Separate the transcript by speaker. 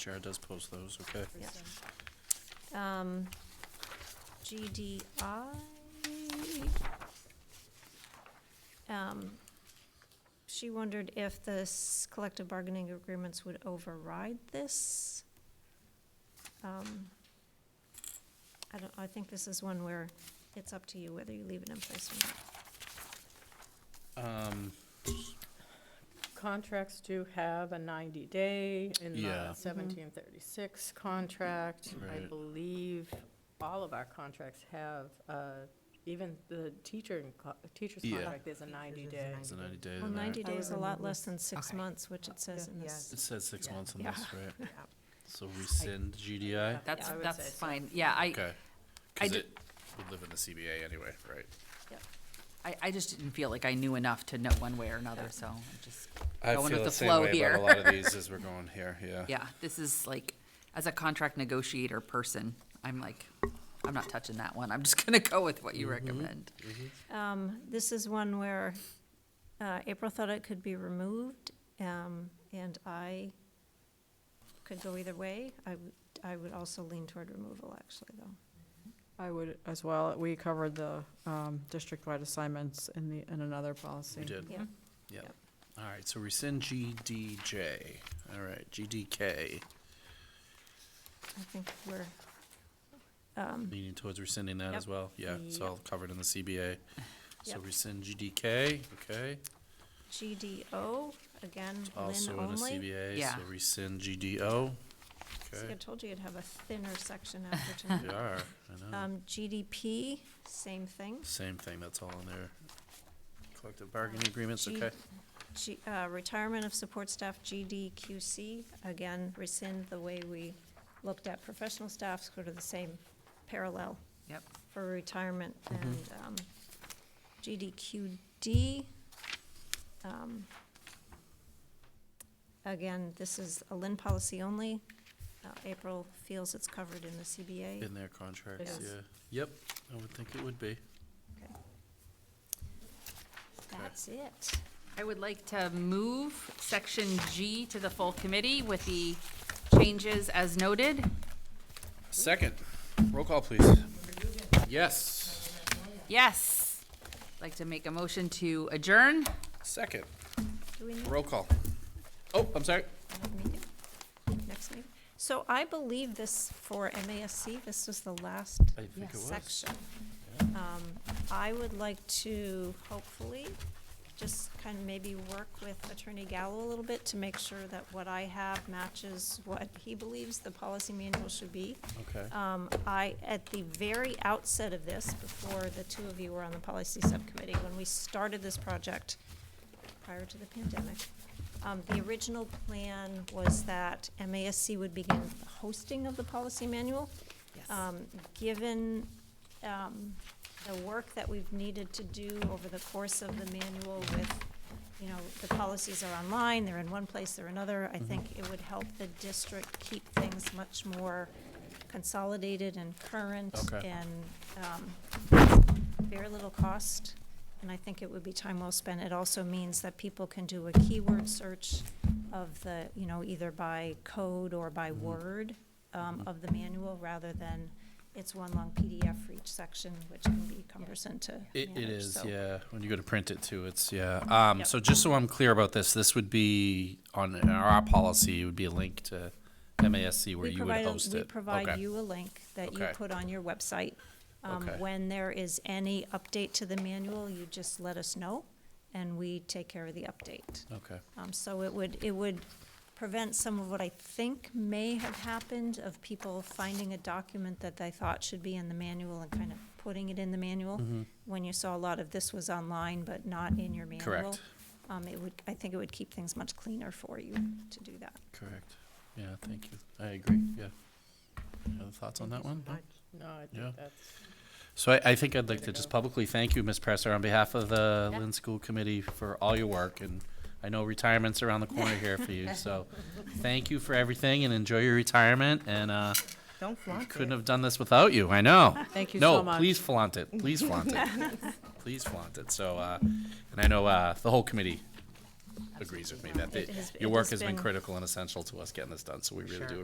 Speaker 1: Chair does post those, okay?
Speaker 2: Yep. Um, GDI. Um, She wondered if the s- collective bargaining agreements would override this. Um, I don't, I think this is one where it's up to you whether you leave it in place or not.
Speaker 1: Um,
Speaker 3: Contracts do have a 90-day in the
Speaker 1: Yeah.
Speaker 3: 1736 contract. I
Speaker 1: Right.
Speaker 3: believe all of our contracts have, uh, even the teacher, and co- teacher's
Speaker 1: Yeah.
Speaker 3: contract is a 90-day.
Speaker 1: it's a ninety day,
Speaker 2: Well,
Speaker 1: isn't it?
Speaker 2: ninety
Speaker 4: I
Speaker 2: days is a lot
Speaker 4: remember
Speaker 2: less
Speaker 4: this.
Speaker 2: than six
Speaker 4: Okay.
Speaker 2: months, which it says in this.
Speaker 1: It says six
Speaker 3: Yeah.
Speaker 1: months on
Speaker 2: Yeah.
Speaker 1: this, right?
Speaker 4: Yeah.
Speaker 1: So rescind GDI?
Speaker 4: That's,
Speaker 3: I would say
Speaker 4: that's
Speaker 3: so.
Speaker 4: fine, yeah, I,
Speaker 1: Okay.
Speaker 4: I
Speaker 1: Cause
Speaker 4: d-
Speaker 1: it would live in the CBA anyway, right?
Speaker 4: I, I just didn't feel like I knew enough to know one way or another, so I'm just,
Speaker 1: I
Speaker 4: Going with
Speaker 1: feel the
Speaker 4: the
Speaker 1: same
Speaker 4: flow
Speaker 1: way
Speaker 4: here.
Speaker 1: about a lot of these as we're going here, yeah.
Speaker 4: yeah, this is like, as a contract negotiator person, I'm like, I'm not touching that one, I'm just gonna go with what you recommend.
Speaker 2: Um, this is one where, uh, April thought it could be removed, um, and I could go either way. I would, I would also lean toward removal, actually, though.
Speaker 5: I would as well. We covered the um, district-wide assignments in the, in another policy.
Speaker 1: We did,
Speaker 2: Yeah,
Speaker 1: yeah.
Speaker 2: Yep.
Speaker 1: All right, so rescind GDJ, all right, GDK,
Speaker 2: I think we're,
Speaker 1: leaning towards rescinding that as
Speaker 2: Yep.
Speaker 1: well? Yeah, it's
Speaker 2: Yep.
Speaker 1: all covered in the CBA. So
Speaker 2: Yep.
Speaker 1: rescind GDK, okay?
Speaker 2: GDO, again,
Speaker 1: Also
Speaker 2: Lynn
Speaker 1: in the
Speaker 2: only.
Speaker 1: CBA,
Speaker 4: Yeah.
Speaker 1: so rescind GDO.
Speaker 2: See, I
Speaker 1: Okay,
Speaker 2: told you you'd have a thinner section after
Speaker 1: we
Speaker 2: tonight.
Speaker 1: are, I know.
Speaker 2: Um, GDP, same thing.
Speaker 1: Same thing, that's all in there. Collective bargaining agreements,
Speaker 2: G-
Speaker 1: okay?
Speaker 2: G, uh, retirement of support staff, GDQC, again, rescind the way we looked at professional staff, sort of the same parallel
Speaker 4: Yep,
Speaker 2: for retirement and, um, GDQD. um, Again, this is a Lynn policy only. Uh, April feels it's covered in the CBA.
Speaker 1: In their contracts,
Speaker 2: Yes.
Speaker 1: yeah. Yep, I would think it would be.
Speaker 2: That's it.
Speaker 4: I would like to move section G to the full committee with the changes as noted.
Speaker 1: Second, roll call, please. Yes,
Speaker 4: Yes, like to make a motion to adjourn.
Speaker 1: second,
Speaker 2: Do we need
Speaker 1: roll call. Oh, I'm sorry.
Speaker 2: meeting, next meeting. So I believe this for MASC, this was the last
Speaker 1: I think it was.
Speaker 2: section. Um, I would like to hopefully just kind of maybe work with Attorney Gallo a little bit to make sure that what I have matches what he believes the policy manual should be.
Speaker 1: Okay.
Speaker 2: Um, I, at the very outset of this, before the two of you were on the policy subcommittee, when we started this project prior to the pandemic, um, the original plan was that MASC would begin the hosting of the policy manual.
Speaker 4: Yes.
Speaker 2: Um, given, um, the work that we've needed to do over the course of the manual with, you know, the policies are online, they're in one place or another, I think it would help the district keep things much more consolidated and current
Speaker 1: Okay.
Speaker 2: and, um, very little cost. And I think it would be time well spent. It also means that people can do a keyword search of the, you know, either by code or by
Speaker 1: Mm-hmm.
Speaker 2: word um, of the manual, rather than it's one long PDF for each section, which can be cumbersome to
Speaker 1: It,
Speaker 2: manage.
Speaker 1: it is,
Speaker 2: So
Speaker 1: yeah. When you go to print it too, it's, yeah. Um,
Speaker 2: Yep.
Speaker 1: so just so I'm clear about this, this would be on our policy, it would be a link to MASC where
Speaker 2: We
Speaker 1: you would
Speaker 2: provide, a-
Speaker 1: host it.
Speaker 2: we provide
Speaker 1: Okay.
Speaker 2: you a link that you
Speaker 1: Okay.
Speaker 2: put on your website. Um,
Speaker 1: Okay.
Speaker 2: When there is any update to the manual, you just let us know, and we take care of the update.
Speaker 1: Okay,
Speaker 2: Um, so it would, it would prevent some of what I think may have happened of people finding a document that they thought should be in the manual and kind of putting it in the manual. When you saw a lot of this was online, but not in your manual.
Speaker 1: Correct.
Speaker 2: Um, it would, I think it would keep things much cleaner for you to do that.
Speaker 1: correct. Yeah, thank you. I agree, yeah. Any other thoughts on that one? No?
Speaker 3: No, I
Speaker 1: Yeah.
Speaker 3: think that's.
Speaker 1: So I, I think I'd like
Speaker 3: Way
Speaker 1: to
Speaker 3: to
Speaker 1: just
Speaker 3: go.
Speaker 1: publicly thank you, Ms. Presser, on behalf of the
Speaker 4: Yeah.
Speaker 1: Lynn School Committee for all your work, and I know retirement's around the corner here for you, so thank you for everything and enjoy your retirement, and, uh,
Speaker 6: Don't flaunt it.
Speaker 1: couldn't have done this without you, I know.
Speaker 5: Thank you so
Speaker 1: No,
Speaker 5: much.
Speaker 1: please flaunt it, please flaunt it, please flaunt it, so, uh, and I know, uh, the whole committee agrees with me that
Speaker 2: It
Speaker 1: they-
Speaker 2: has-
Speaker 1: your
Speaker 2: it
Speaker 1: work
Speaker 2: has
Speaker 1: has been
Speaker 2: been-
Speaker 1: critical and essential to us getting this done, so we really
Speaker 6: Sure.
Speaker 1: do